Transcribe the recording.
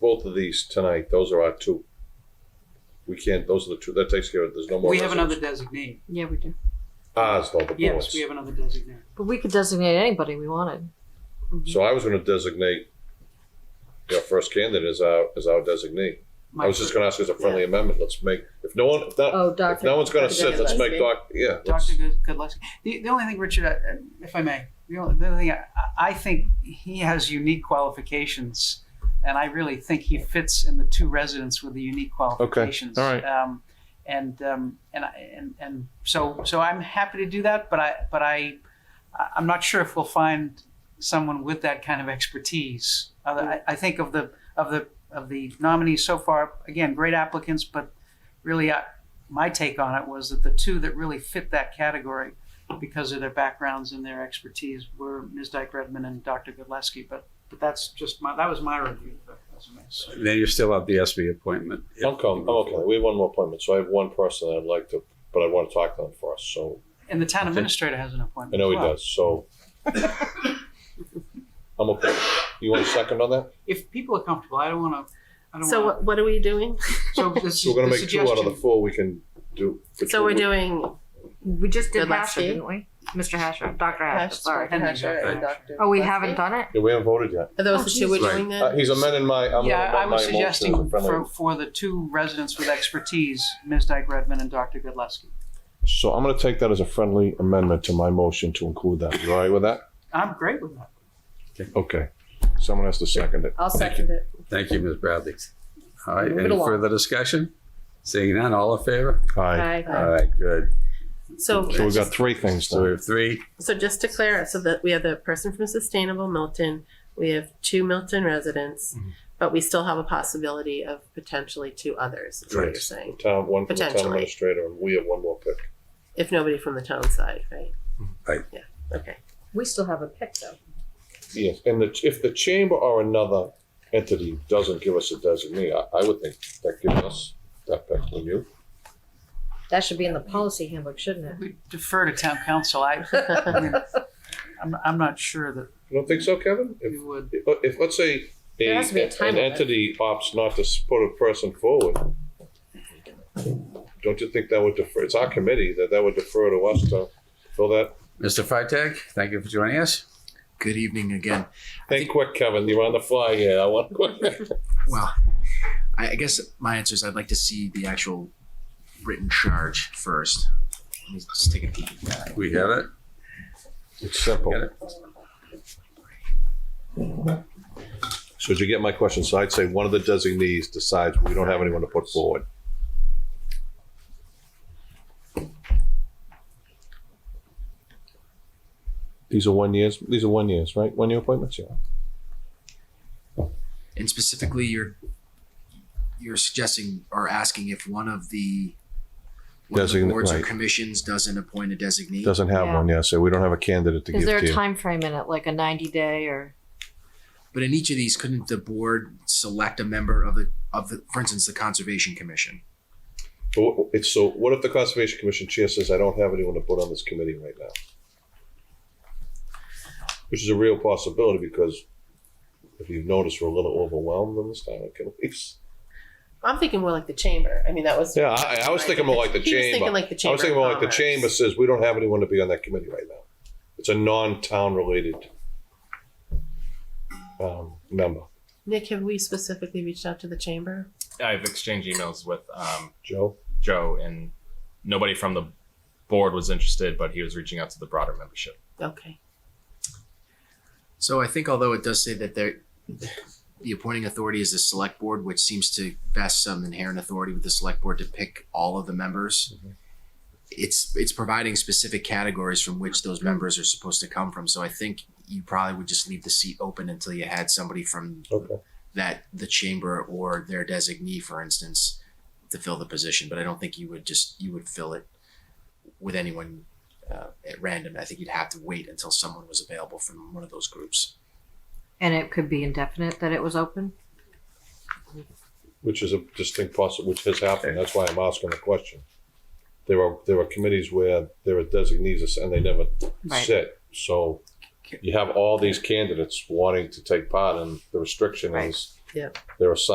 both of these tonight, those are our two. We can't, those are the two, that takes care of, it. there's no more. We have another residents. designee. Yeah, we do. Ours though, the Yes, boards. we have another designee. But we could designate anybody we wanted. So I was gonna designate our first candidate as our, as our designee. I was just gonna ask as a friendly amendment, let's make, if no one, if not, Oh, Dr. if no one's gonna Dr. sit, let's make Gillespie. Doc, yeah. let's- Dr. Good- Goodlesky. The, the only thing, Richard, uh, if I may, the only, the only thing, I, I think he has unique qualifications, and I really think he fits in the two residents with the unique qualifications. all right. Um, and um, and I, and and so so I'm happy to do that, but I but I I- I'm not sure if we'll find someone with that kind of expertise. Uh, I, I think of the of the of the nominees so far, again, great applicants, but really, I, my take on it was that the two that really fit that category because of their backgrounds and their expertise were Ms. Dyke Redmond and Dr. Godleski. But but that's just my that was my review of the resumes. Then you still have the SB appointment. I'm com- I'm okay, we have one more appointment, so I have one person I'd like to, but I wanna talk to them first, so, And the town administrator has an appointment. I know as he well. does, so. I'm okay, you want a second on that? If people are comfortable, I don't want to. I don't So want. what, what are we doing? So this So is we're gonna the make two out of the suggestion. four we can do. which So we- we're doing We just did Good last Hasher, year. didn't we? Mr. Hasher, Dr. Hasher, hash, sorry. Henry hash got and that. Dr. Oh, we Gillespie? haven't done it? Yeah, we haven't voted yet. Are Oh, those the two we're geez. doing Uh, then? he's amending my, I'm yeah, I amending my was motion suggesting as a friendly. for, for the two residents with expertise, Ms. Dyke Redmond and Dr. Godleski. So I'm gonna take that as a friendly amendment to my motion to include that. You all right with that? I'm great with that. Okay. Someone has to second it. I'll second it. Thank you, Ms. Bradley. All right, Move it any along. further discussion? Seeing none, all in favor? Aye. Aye. All right, good. So, So we've got just- three things So we to, have three. so just to clear, so that we have the person from Sustainable Milton, we have two Milton residents, Mm-hmm. but we still have a possibility of potentially two others, is what Right. you're saying. town, one from the town Potentially. administrator, and we have one more pick. If nobody from the town side, right? Mm-hmm. Right. Yeah, okay. We still have a pick though. Yes, and the, if the chamber or another entity doesn't give us a designee, I, I would think that gives us that pick, would you? That should be in the policy handbook, shouldn't it? We defer to town council. I, I mean, I'm, I'm not sure that You don't think so, Kevin? If, we would. if, if, let's say a, There has to be a time an limit. entity opts not to s- put a person forward, don't you think that would defer, it's our committee, that that would defer to us to fill that? Mr. Freitag, thank you for joining us. Good evening again. Think quick, Kevin, you're on the fly here, I want quick. Well, I, I guess my answer is I'd like to see the actual written charge first. Let me just take a peek at that. We have it. It's simple. Got it. So did you get my question? So I'd say one of the designees decides we don't have anyone to put forward. These are one years, these are one years, right? One year appointments, yeah. And specifically, you're you're suggesting or asking if one of the one of the Design- boards right. or commissions doesn't appoint a designee. Doesn't have Yeah. one, yeah, so we don't have a candidate to give Is there to a you. time frame in it, like a ninety day or? But in each of these, couldn't the board select a member of the of the, for instance, the conservation commission? But what- It's, so what if the Conservation Commission chair says, I don't have anyone to put on this committee right now? Which is a real possibility because if you've noticed, we're a little overwhelmed in this town, can we? I'm thinking more like the chamber. I mean, that was. Yeah, I, I was thinking more like the He was thinking chamber. like the I chamber. was thinking of more like the Commerce. chamber says, we don't have anyone to be on that committee right now. It's a non-town related um, member. Nick, have we specifically reached out to the chamber? I've exchanged emails with um, Joe? Joe, and nobody from the board was interested, but he was reaching out to the broader membership. Okay. So I think although it does say that there, the appointing authority is the select board, which seems to vest some inherent authority with the select board to pick all of the members. It's, it's providing specific categories from which those members are supposed to come from. So I think you probably would just leave the seat open until you had somebody from Okay. that, the chamber or their designee, for instance, to fill the position. But I don't think you would just, you would fill it with anyone uh, at random. I think you'd have to wait until someone was available from one of those groups. And it could be indefinite that it was open? Which is a distinct possible, which has happened. That's why I'm asking the question. There are, there are committees where there are designees and they never sit. So you have all these candidates wanting to take part and the restriction Right. is Yeah. they're assigned